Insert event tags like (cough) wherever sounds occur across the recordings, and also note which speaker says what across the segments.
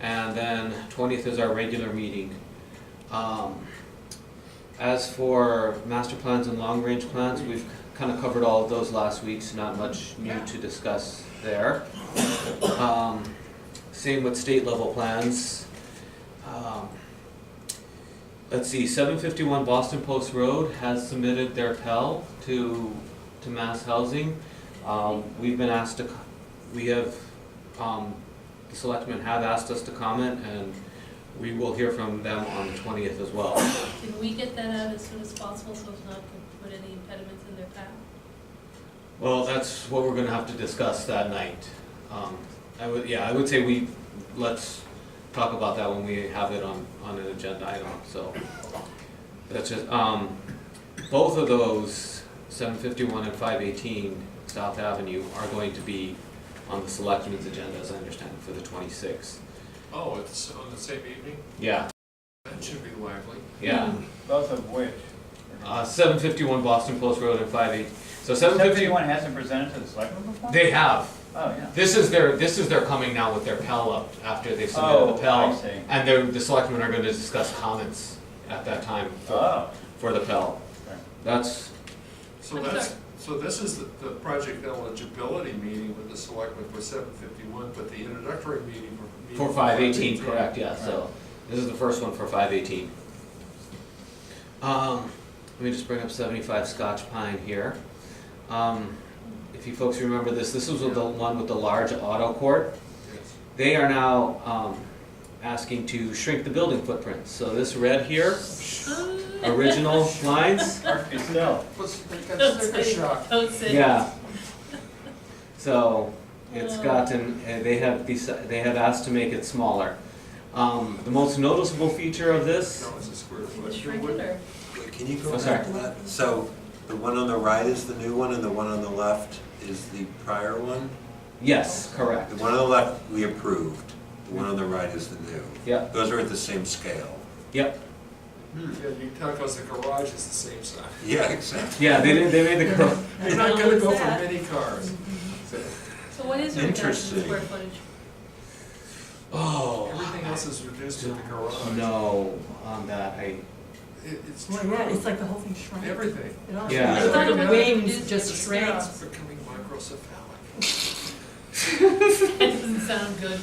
Speaker 1: and then twentieth is our regular meeting. Um, As for master plans and long-range plans, we've kind of covered all of those last week, so not much new to discuss there. Um, Same with state-level plans. Um, Let's see, seven fifty-one Boston Post Road has submitted their Pell to, to Mass Housing. Um, we've been asked to, c- we have, um, the selectmen have asked us to comment, and we will hear from them on the twentieth as well.
Speaker 2: Can we get that out as soon as possible so as not to put any impediments in their path?
Speaker 1: Well, that's what we're gonna have to discuss that night. Um, I would, yeah, I would say we, let's talk about that when we have it on, on an agenda item, so. That's just, um, both of those, seven fifty-one and five eighteen South Avenue are going to be on the selectmen's agenda, as I understand, it, for the twenty-sixth.
Speaker 3: Oh, it's on the same evening?
Speaker 1: Yeah,
Speaker 3: That should be lively.
Speaker 1: yeah.
Speaker 4: Both of which.
Speaker 1: Uh, seven fifty-one Boston Post Road and five eight, so seven fifty,
Speaker 4: Seventy-one hasn't presented to the selectmen before?
Speaker 1: they have,
Speaker 4: Oh, yeah.
Speaker 1: This is their, this is their coming now with their Pell up after they've submitted
Speaker 4: Oh,
Speaker 1: the
Speaker 4: I
Speaker 1: Pell.
Speaker 4: see.
Speaker 1: And they're, the selectmen are gonna discuss comments at that time for,
Speaker 4: Oh,
Speaker 1: for the Pell.
Speaker 4: okay.
Speaker 1: That's,
Speaker 3: So
Speaker 2: I'm
Speaker 3: that's,
Speaker 2: sorry.
Speaker 3: so this is the, the project eligibility meeting with the selectmen for seven fifty-one, but the introductory meeting for.
Speaker 1: for five eighteen, correct, yeah, so, this is the first one for five eighteen. Um, let me just bring up seventy-five Scotch Pine here. Um, if you folks remember this, this was the one with the large auto court.
Speaker 3: Yes.
Speaker 1: They are now, um, asking to shrink the building footprint, so this red here,
Speaker 5: Uh,
Speaker 2: (laughs)
Speaker 5: (laughs)
Speaker 1: original lines,
Speaker 4: Mark Castell.
Speaker 3: Let's,
Speaker 2: Don't
Speaker 3: let's
Speaker 2: say-
Speaker 3: take a shot.
Speaker 2: Don't say.
Speaker 1: Yeah. So it's
Speaker 2: Oh.
Speaker 1: gotten, uh, they have, deci- they have asked to make it smaller. Um, The most noticeable feature of this,
Speaker 3: No, it's a square foot.
Speaker 2: Shrink it or-
Speaker 5: Wait, Can you
Speaker 1: Oh,
Speaker 5: go back
Speaker 1: sorry.
Speaker 5: to that? So the one on the right is the new one and the one on the left is the prior one?
Speaker 1: yes, correct.
Speaker 5: The one on the left, we approved. The one on the right is the new.
Speaker 1: Yep,
Speaker 5: Those are at the same scale.
Speaker 1: yep,
Speaker 3: Yeah, you tell us the garage is the same size.
Speaker 5: Yeah, (laughs) exactly.
Speaker 1: yeah, they did, they made the,
Speaker 5: (laughs)
Speaker 1: cor-
Speaker 3: You're not gonna go for
Speaker 2: That-
Speaker 3: mini cars. So
Speaker 2: So what is your reduction in
Speaker 5: Interesting.
Speaker 2: square footage?
Speaker 1: oh,
Speaker 3: Everything else is reduced to the garage.
Speaker 1: no, on that, I,
Speaker 3: It, it's
Speaker 6: Oh my God,
Speaker 3: true,
Speaker 6: it's like the whole thing shrank.
Speaker 3: everything.
Speaker 6: It all
Speaker 1: Yeah.
Speaker 6: shrank.
Speaker 3: It's
Speaker 6: The
Speaker 3: like
Speaker 6: wings
Speaker 2: a-
Speaker 6: just shrank.
Speaker 3: It's becoming microcephalic.
Speaker 2: That doesn't sound good.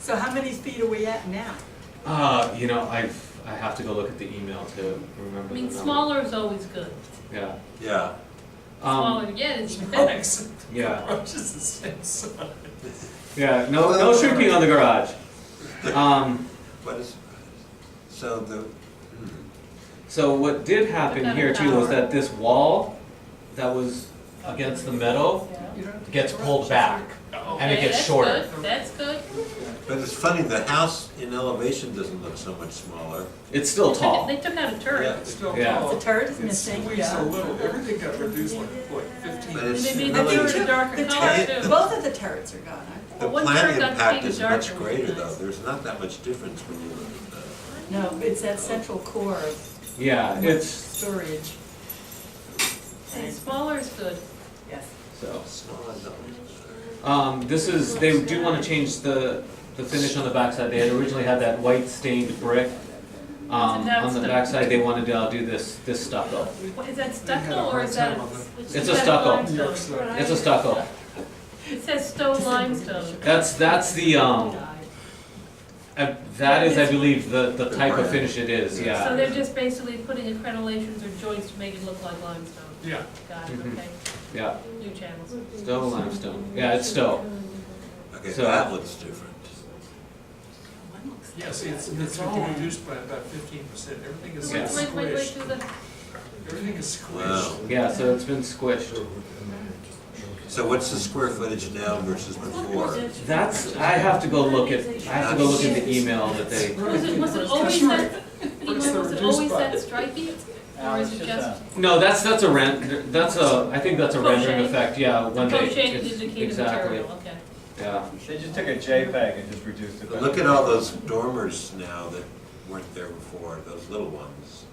Speaker 6: So how many feet are we at now?
Speaker 1: uh, you know, I've, I have to go look at the email to remember
Speaker 2: I
Speaker 1: the
Speaker 2: mean,
Speaker 1: number.
Speaker 2: smaller is always good.
Speaker 1: Yeah.
Speaker 5: Yeah.
Speaker 1: Um,
Speaker 2: Smaller, yeah, it's even better.
Speaker 3: (laughs)
Speaker 1: Yeah.
Speaker 3: Garage is the same size.
Speaker 1: Yeah, no, no shrinking on the garage. Um,
Speaker 5: What is, so the,
Speaker 1: So what did happen
Speaker 2: Another
Speaker 1: here too was
Speaker 2: tower.
Speaker 1: that this wall that was against the meadow
Speaker 3: You don't have to-
Speaker 1: gets pulled back.
Speaker 3: Oh.
Speaker 1: And it
Speaker 2: Okay,
Speaker 1: oh, gets
Speaker 2: that's
Speaker 1: shorter.
Speaker 2: good, That's good.
Speaker 5: but it's funny, the house in elevation doesn't look so much smaller.
Speaker 1: It's still
Speaker 2: (laughs) They took it-
Speaker 1: tall.
Speaker 2: They took out a turret.
Speaker 5: Yeah.
Speaker 3: It's still
Speaker 1: Yeah.
Speaker 3: tall.
Speaker 6: The turret is
Speaker 3: It's
Speaker 6: missing,
Speaker 3: squeezed
Speaker 6: yeah.
Speaker 3: a little, everything got reduced like, what, fifteen?
Speaker 5: But it's
Speaker 2: Maybe
Speaker 6: I
Speaker 2: they were
Speaker 6: think
Speaker 5: really,
Speaker 2: a
Speaker 6: two-
Speaker 2: darker
Speaker 6: the
Speaker 2: color
Speaker 6: turret-
Speaker 2: too.
Speaker 6: Both of the turrets are gone, aren't
Speaker 5: the
Speaker 2: One
Speaker 5: plan
Speaker 2: third got
Speaker 5: impact
Speaker 2: big
Speaker 5: is
Speaker 2: darker
Speaker 5: much
Speaker 2: would be
Speaker 5: greater though.
Speaker 2: nice.
Speaker 5: There's not that much difference when you look at the,
Speaker 6: they? No, it's that central core of
Speaker 1: Yeah, it's,
Speaker 6: storage.
Speaker 2: And smaller is good.
Speaker 6: Yes.
Speaker 1: so,
Speaker 5: smaller though.
Speaker 1: um, this is, they do wanna change the, the finish on the backside. They had originally had that white stained brick. Um, on the backside, they wanted to uh, do this, this stucco.
Speaker 2: What, is that
Speaker 3: They had a
Speaker 2: stucco or
Speaker 3: hard
Speaker 2: is that?
Speaker 3: time
Speaker 2: a-
Speaker 3: on
Speaker 2: is
Speaker 1: It's a
Speaker 2: that
Speaker 1: stucco.
Speaker 3: New York
Speaker 2: limestone?
Speaker 3: City.
Speaker 1: It's a stucco.
Speaker 2: It says stone limestone.
Speaker 1: That's, that's the, um, uh, that is, I believe, the, the type of finish it is,
Speaker 2: So
Speaker 1: yeah.
Speaker 2: they're just basically putting accreditations or joints to make it look like limestone.
Speaker 3: Yeah.
Speaker 2: Got it,
Speaker 1: Mhm.
Speaker 2: okay.
Speaker 1: Yeah,
Speaker 2: New channels.
Speaker 1: Stowe limestone. Yeah, it's Stowe.
Speaker 5: Okay,
Speaker 1: So-
Speaker 5: that looks different.
Speaker 3: Yes, it's, it's been reduced by about fifteen percent, everything is
Speaker 2: Wait, wait, wait, wait,
Speaker 3: squished,
Speaker 2: do the,
Speaker 3: everything is
Speaker 5: Wow.
Speaker 3: squished.
Speaker 1: Yeah, so it's been squished.
Speaker 5: So what's the square footage now versus before?
Speaker 1: That's, I have to go look at, I have to go look at the email that they,
Speaker 2: was it, was it always that, Ian, was it always that striking? Or is it
Speaker 4: uh,
Speaker 2: just
Speaker 1: no, that's, that's a rent, that's a, I think that's a rendering
Speaker 2: Crochet.
Speaker 1: effect, yeah,
Speaker 2: the
Speaker 1: when they.
Speaker 2: crocheted
Speaker 1: it's-
Speaker 2: indicated material,
Speaker 1: Exactly,
Speaker 2: okay?
Speaker 1: yeah.
Speaker 4: They just took a JPEG and just reduced it.
Speaker 5: But Look at all those dormers now that weren't there before, those little ones.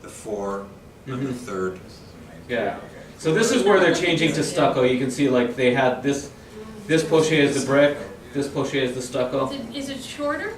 Speaker 5: The four and the
Speaker 1: Mhm.
Speaker 5: third.
Speaker 4: This is amazing.
Speaker 1: Yeah. So this is where they're changing to stucco, you can see like they had this, this pochette is the brick, this pochette is the stucco.
Speaker 2: Is it, is it shorter?